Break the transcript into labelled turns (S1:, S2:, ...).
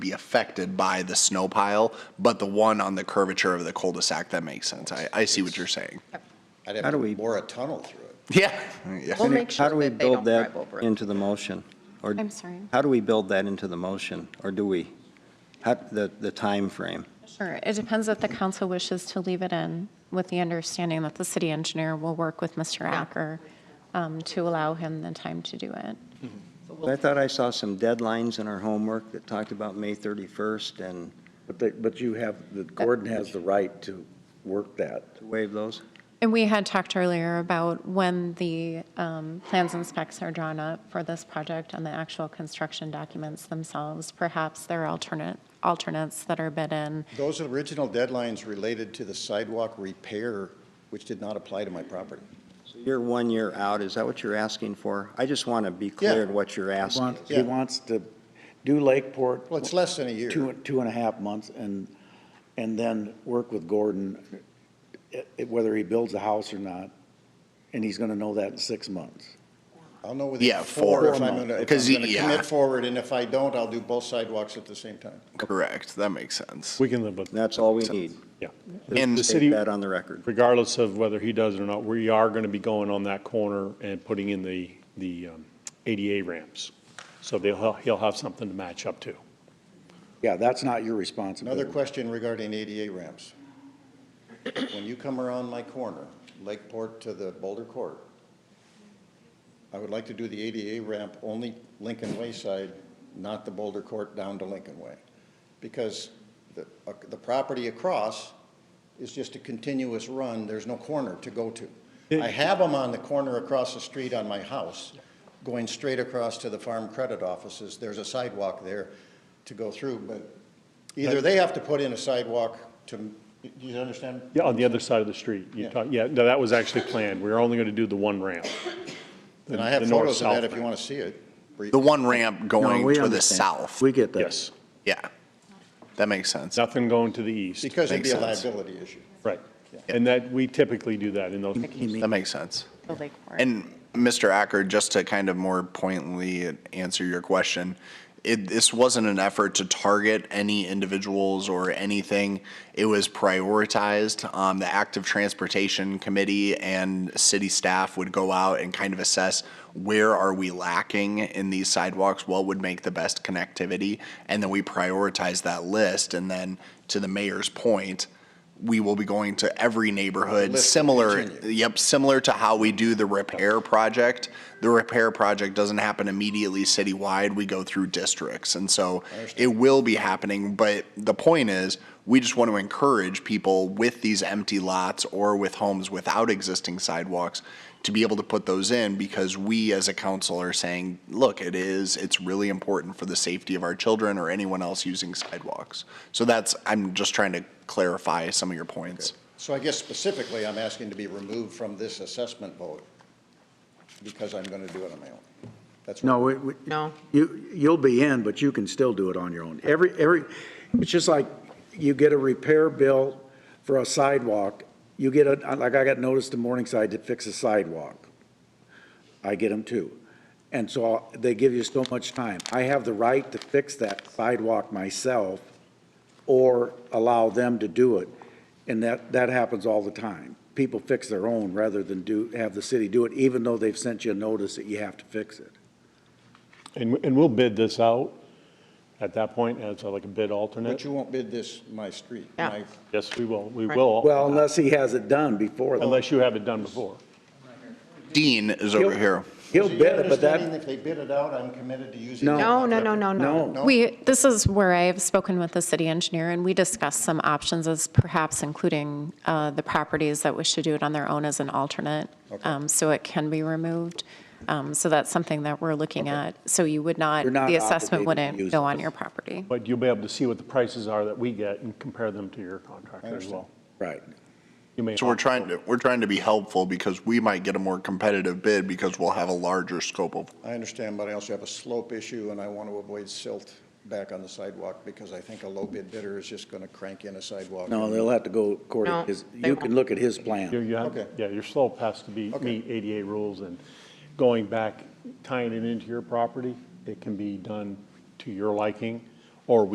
S1: be affected by the snow pile, but the one on the curvature of the cul-de-sac, that makes sense. I, I see what you're saying.
S2: I'd
S3: How
S2: have
S3: do
S2: to
S3: we-
S2: bore a tunnel through it.
S1: Yeah. yeah.
S4: We'll make
S3: How
S4: sure
S3: do we
S4: that they
S3: build
S4: don't drive
S3: that
S4: over it.
S3: into the motion? Or-
S5: I'm sorry.
S3: How do we build that into the motion, or do we? How, the, the timeframe?
S5: Sure, it depends if the council wishes to leave it in, with the understanding that the city engineer will work with Mr. Acker um, to allow him the time to do it.
S3: I thought I saw some deadlines in our homework that talked about May 31st and
S6: But they, but you have, the Gordon has the right to work that.
S3: to waive those.
S5: And we had talked earlier about when the um, plans and specs are drawn up for this project and the actual construction documents themselves, perhaps there are alternate, alternates that are bid in.
S2: Those original deadlines related to the sidewalk repair, which did not apply to my property.
S3: So you're one year out, is that what you're asking for? I just want to be clear in what you're
S6: He
S3: asking.
S6: wants-
S2: Yeah.
S6: He wants to do Lakeport.
S2: Well, it's less than a year.
S6: Two, two and a half months, and, and then work with Gordon, eh, eh, whether he builds a house or not, and he's gonna know that in six months.
S2: I'll know within
S1: Yeah,
S2: four
S1: four
S2: if I'm
S1: months.
S2: gonna, if
S1: 'Cause
S2: I'm
S1: y-
S2: gonna
S1: yeah.
S2: commit forward, and if I don't, I'll do both sidewalks at the same time.
S1: Correct, that makes sense.
S7: We can live with that.
S3: That's all we need.
S7: Yeah.
S1: And-
S7: The
S3: Take
S7: city,
S3: that on the record.
S7: regardless of whether he does it or not, we are going to be going on that corner and putting in the, the um, ADA ramps. So they'll, he'll have something to match up to.
S6: Yeah, that's not your
S2: Another
S6: responsibility.
S2: question regarding ADA ramps. When you come around my corner, Lakeport to the Boulder Court, I would like to do the ADA ramp only Lincoln Way side, not the Boulder Court down to Lincoln Way. Because the, uh, the property across is just a continuous run, there's no corner to go to. I have them on the corner across the street on my house, going straight across to the Farm Credit Offices. There's a sidewalk there to go through, but Either they have to put in a sidewalk to, do you understand?
S7: Yeah, on the other side of the street. You
S2: Yeah.
S7: talk, yeah, no, that was actually planned. We were only going to do the one ramp.
S2: And I have
S7: The north,
S2: photos of that
S7: south
S2: if you
S7: ramp.
S2: want to see it.
S1: The one ramp going
S6: No, we
S1: to the
S6: understand.
S1: south.
S6: We get that.
S7: Yes,
S1: Yeah, that makes sense.
S7: nothing going to the east.
S2: Because it'd be a
S1: Makes sense.
S2: liability issue.
S7: Right. And that, we typically do that in those.
S1: That makes sense.
S5: The lake for it.
S1: And Mr. Acker, just to kind of more pointedly answer your question, it, this wasn't an effort to target any individuals or anything. It was prioritized. Um, the active transportation committee and city staff would go out and kind of assess where are we lacking in these sidewalks? What would make the best connectivity? And then we prioritize that list. And then to the mayor's point, we will be going to every neighborhood,
S2: List
S1: similar,
S2: continue.
S1: yep, similar to how we do the repair project. The repair project doesn't happen immediately citywide, we go through districts, and so it will be happening, but the point is, we just want to encourage people with these empty lots or with homes without existing sidewalks to be able to put those in because we as a council are saying, look, it is, it's really important for the safety of our children or anyone else using sidewalks. So that's, I'm just trying to clarify some of your points.
S2: So I guess specifically, I'm asking to be removed from this assessment vote because I'm going to do it on my own. That's
S6: No, we, we.
S4: No.
S6: You, you'll be in, but you can still do it on your own. Every, every, it's just like you get a repair bill for a sidewalk, you get a, like I got noticed to Morningside to fix a sidewalk. I get them too. And so they give you so much time. I have the right to fix that sidewalk myself or allow them to do it. And that, that happens all the time. People fix their own rather than do, have the city do it, even though they've sent you a notice that you have to fix it.
S7: And, and we'll bid this out at that point as like a bid
S2: But
S7: alternate.
S2: you won't bid this my street.
S4: Yeah.
S2: my-
S7: Yes, we will, we will,
S6: Well, unless he has it done before. then.
S7: unless you have it done before.
S1: Dean is over here.
S6: He'll
S2: Is your
S6: bid it, but
S2: understanding
S6: that,
S2: If they bid it out, I'm committed to using.
S6: No.
S2: it?
S4: No, no, no, no, no.
S6: no,
S5: We, this is where I have spoken with the city engineer, and we discussed some options as perhaps including uh, the properties that wish to do it on their own as an alternate, um, so it can be removed. Um, So that's something that we're looking at. So you would not,
S6: You're not
S5: the assessment
S6: obligated to
S5: wouldn't
S6: use
S5: go on
S6: this.
S5: your property.
S7: But you'll be able to see what the prices are that we get and compare them to your contractor as well.
S6: right.
S7: You may
S1: So we're
S7: not.
S1: trying to, we're trying to be helpful because we might get a more competitive bid because we'll have a larger scope of
S2: I understand, but I also have a slope issue and I want to avoid silt back on the sidewalk because I think a low bid bidder is just going to crank in a sidewalk.
S6: No, they'll have to go according,
S4: No,
S6: to his-
S4: they
S6: you can
S4: won't.
S6: look at his
S7: You-
S6: plan.
S7: you have-
S2: Okay.
S7: Yeah, your slope has to be,
S2: Okay.
S7: meet ADA rules and going back, tying it into your property, it can be done to your liking, or we